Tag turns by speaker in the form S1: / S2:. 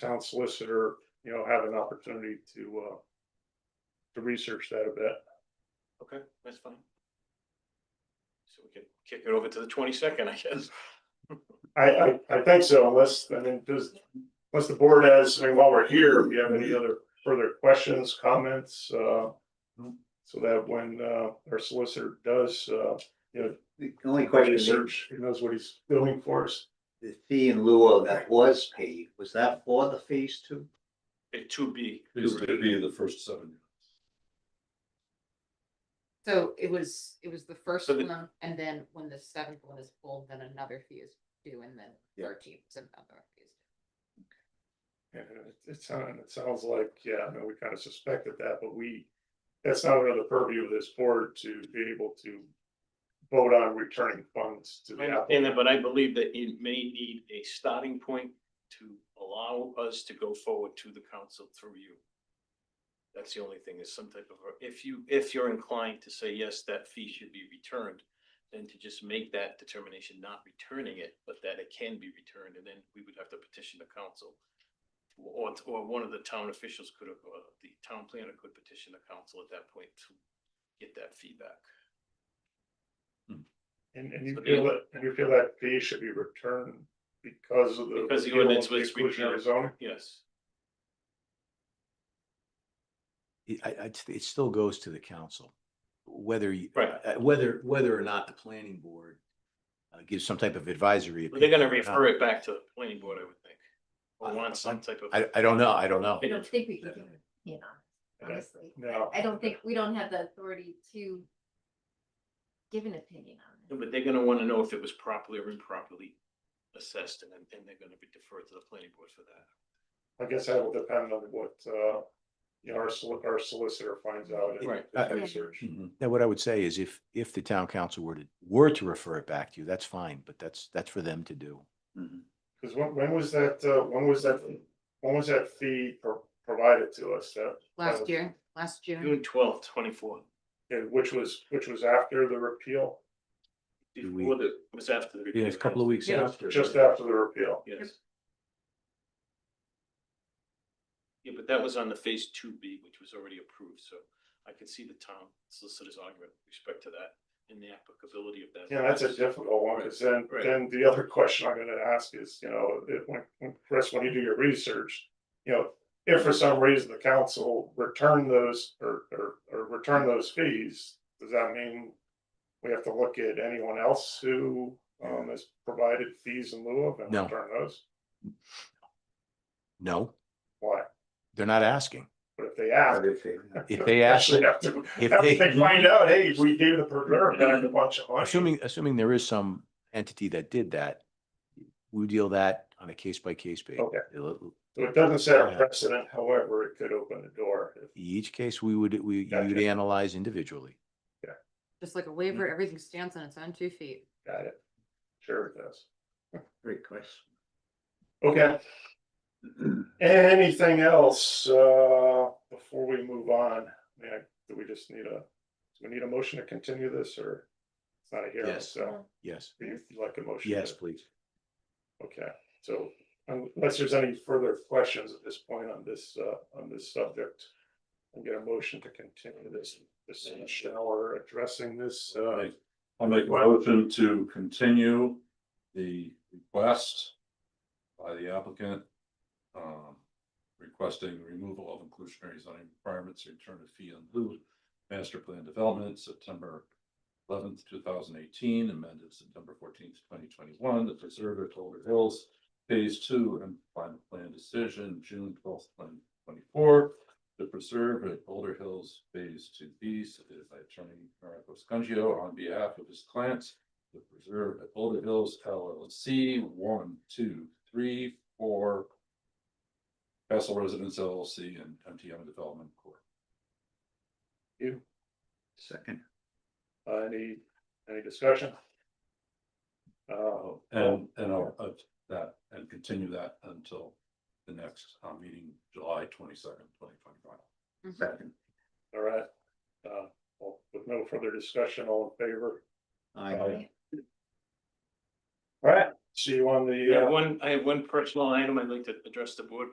S1: town solicitor, you know, have an opportunity to, uh, to research that a bit.
S2: Okay, that's fine. So we can kick it over to the twenty-second, I guess.
S1: I, I, I think so, unless, I mean, does, unless the board has, I mean, while we're here, if you have any other further questions, comments, uh, so that when, uh, our solicitor does, uh,
S3: The only question, is,
S1: research, he knows what he's doing for us.
S3: the fee in lieu of that was paid, was that for the phase two?
S2: It to be,
S4: These would be the first seven.
S5: So it was, it was the first
S2: So the-
S5: one, and then when the seventh one is pulled, then another fee is due, and then
S3: Yeah.
S5: thirteenth is another fee. is due.
S1: Yeah, it- It sounds, it sounds like, yeah, I know we kind of suspected that, but we, that's not under the purview of this board to be able to vote on returning funds to
S2: I
S1: the applicant.
S2: understand that, but I believe that it may need a starting point to allow us to go forward to the council through you. That's the only thing is some type of, if you, if you're inclined to say, yes, that fee should be returned, then to just make that determination, not returning it, but that it can be returned, and then we would have to petition the council. Or, or one of the town officials could have, uh, the town planner could petition the council at that point to get that feedback.
S1: And, and you
S2: So
S1: feel
S2: the-
S1: that, and you feel that fee should be returned because of the.
S2: Because the
S1: repeal of
S2: ordinance was
S1: Exclusionary
S2: repealed.
S1: zoning?
S2: Yes.
S6: it- I, I, it still goes to the council. Whether, you-
S2: Right.
S6: uh, whether, whether or not the planning board uh, gives some type of advisory.
S2: Well, They're gonna
S6: opinion or not.
S2: refer it back to the planning board, I would think.
S6: I-
S2: Or want some
S6: I'm-
S2: type of.
S6: I, I don't know. I don't know.
S7: I don't think we can do it, you know,
S1: Okay.
S7: honestly.
S1: No.
S7: I don't think, we don't have the authority to give an opinion on it.
S2: But they're gonna wanna know if it was properly or improperly assessed and then, and they're gonna be deferred to the planning board for that.
S1: I guess that will depend on what, uh, you know, our soli- our solicitor finds out. in
S2: Right.
S1: his
S6: Uh,
S1: Research.
S6: Mhm. Now, what I would say is if, if the town council were to, were to refer it back to you, that's fine, but that's, that's for them to do.
S1: Cause when, when was that, uh, when was that, when was that fee pro- provided to us that,
S5: Last
S1: was-
S5: year, last June,
S2: June twelfth, twenty-four.
S1: and which was, which was after the repeal?
S6: Do we-
S2: Before the, it was after the.
S6: Yeah, it's a couple of weeks
S5: Yeah.
S6: after.
S1: Just after the repeal.
S2: Yes. Yeah, but that was on the phase two B, which was already approved, so I could see the town solicitor's argument with respect to that and the applicability of that.
S1: Yeah, that's a difficult one, because then,
S2: Right.
S1: then the other question I'm gonna ask is, you know, if, when, when, Chris, when you do your research, you know, if for some reason the council return those, or, or, or return those fees, does that mean we have to look at anyone else who, um, has provided fees in lieu of and
S6: No.
S1: return those?
S6: No,
S1: Why?
S6: they're not asking.
S1: But if they ask.
S6: If they ask,
S1: actually Have to,
S6: if
S1: have
S6: they-
S1: to find out, hey, we gave the preserve back a bunch of money.
S6: assuming, assuming there is some entity that did that, we deal that on a case by case basis.
S1: Okay.
S6: It'll-
S1: So it doesn't set a precedent, however, it could open the door if
S6: Each case, we would, we, you'd
S1: Gotcha.
S6: analyze individually.
S5: just like a waiver, everything stands on its own two feet.
S1: Got it. Sure it does.
S3: Great question.
S1: Okay, anything else, uh, before we move on? Man, do we just need a, do we need a motion to continue this or? It's not a hearing,
S6: Yes.
S1: so
S6: Yes.
S1: do you you'd like a motion?
S6: Yes, please.
S1: Okay, so unless there's any further questions at this point on this, uh, on this subject. I'm get a motion to continue this, this session or addressing this, uh,
S4: I'll make a motion to continue the request by the applicant. um, Requesting removal of inclusionary zoning requirements, return of fee and lieu, master plan development, September eleventh, two thousand eighteen, amended September fourteenth, twenty twenty-one, the preserve at Boulder Hills. Phase two and final plan decision, June twelfth, twenty twenty-four. The preserve at Boulder Hills Phase Two B, submitted by attorney Marco Scungio on behalf of his clients. The preserve at Boulder Hills LLC, one, two, three, four. Castle Residence LLC and MTM Development Corp.
S1: you,
S3: Second.
S1: uh, any, any discussion? Uh,
S4: Oh, and, and I'll, uh, that, and continue that until the next, uh, meeting, July twenty-second, twenty twenty-five.
S5: Mm-hmm.
S3: Second.
S1: All right, uh, well, with no further discussion, all in favor?
S3: Aye.
S1: All right, see you on
S2: I
S1: the,
S2: have
S1: uh,
S2: one, I have one personal item I'd like to address the board with.